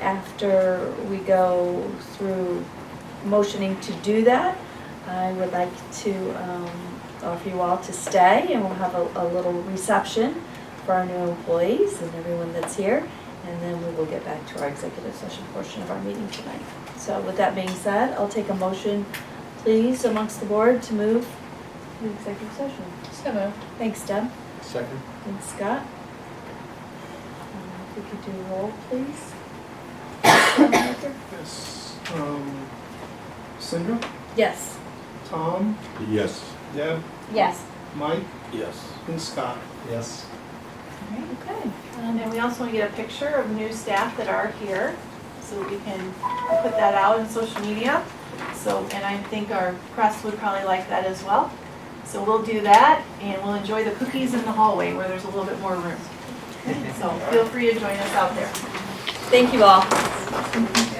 after we go through motioning to do that, I would like to um, offer you all to stay and we'll have a, a little reception for our new employees and everyone that's here. And then we will get back to our executive session portion of our meeting tonight. So with that being said, I'll take a motion, please, amongst the board to move to executive session. So moved. Thanks, Deb. Second? Thanks, Scott. Um, If we could do roll, please. Yes. Um, Cinder, Yes. Tom, Yes. Deb, Yes. Mike, Yes. and Scott. Yes. Okay. Um, And we also want to get a picture of new staff that are here, so we can put that out on social media. So, and I think our press would probably like that as well. So we'll do that, and we'll enjoy the cookies in the hallway where there's a little bit more room. So feel free to join us out there. Thank you all.